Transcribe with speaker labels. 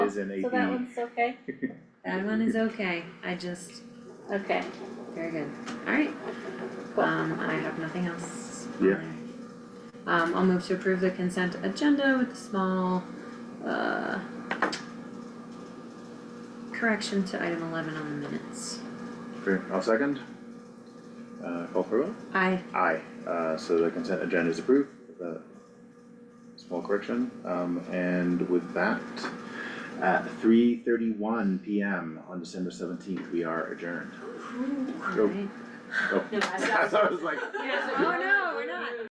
Speaker 1: is in
Speaker 2: So that one's okay,
Speaker 3: That one is okay, I just,
Speaker 2: okay,
Speaker 3: very good, alright.
Speaker 2: Cool.
Speaker 3: Um, I have nothing else.
Speaker 1: Yeah.
Speaker 3: Um, I'll move to approve the consent agenda with the small, uh, correction to item eleven on the minutes.
Speaker 1: Okay, I'll second. Uh, call for a vote?
Speaker 3: Aye.
Speaker 1: Aye, uh, so the consent agenda is approved, with a small correction, um, and with that, at three thirty-one PM on December seventeenth, we are adjourned.
Speaker 3: Alright.
Speaker 1: Oh,
Speaker 4: No, I
Speaker 1: I thought it was like,
Speaker 3: Oh, no, we're not.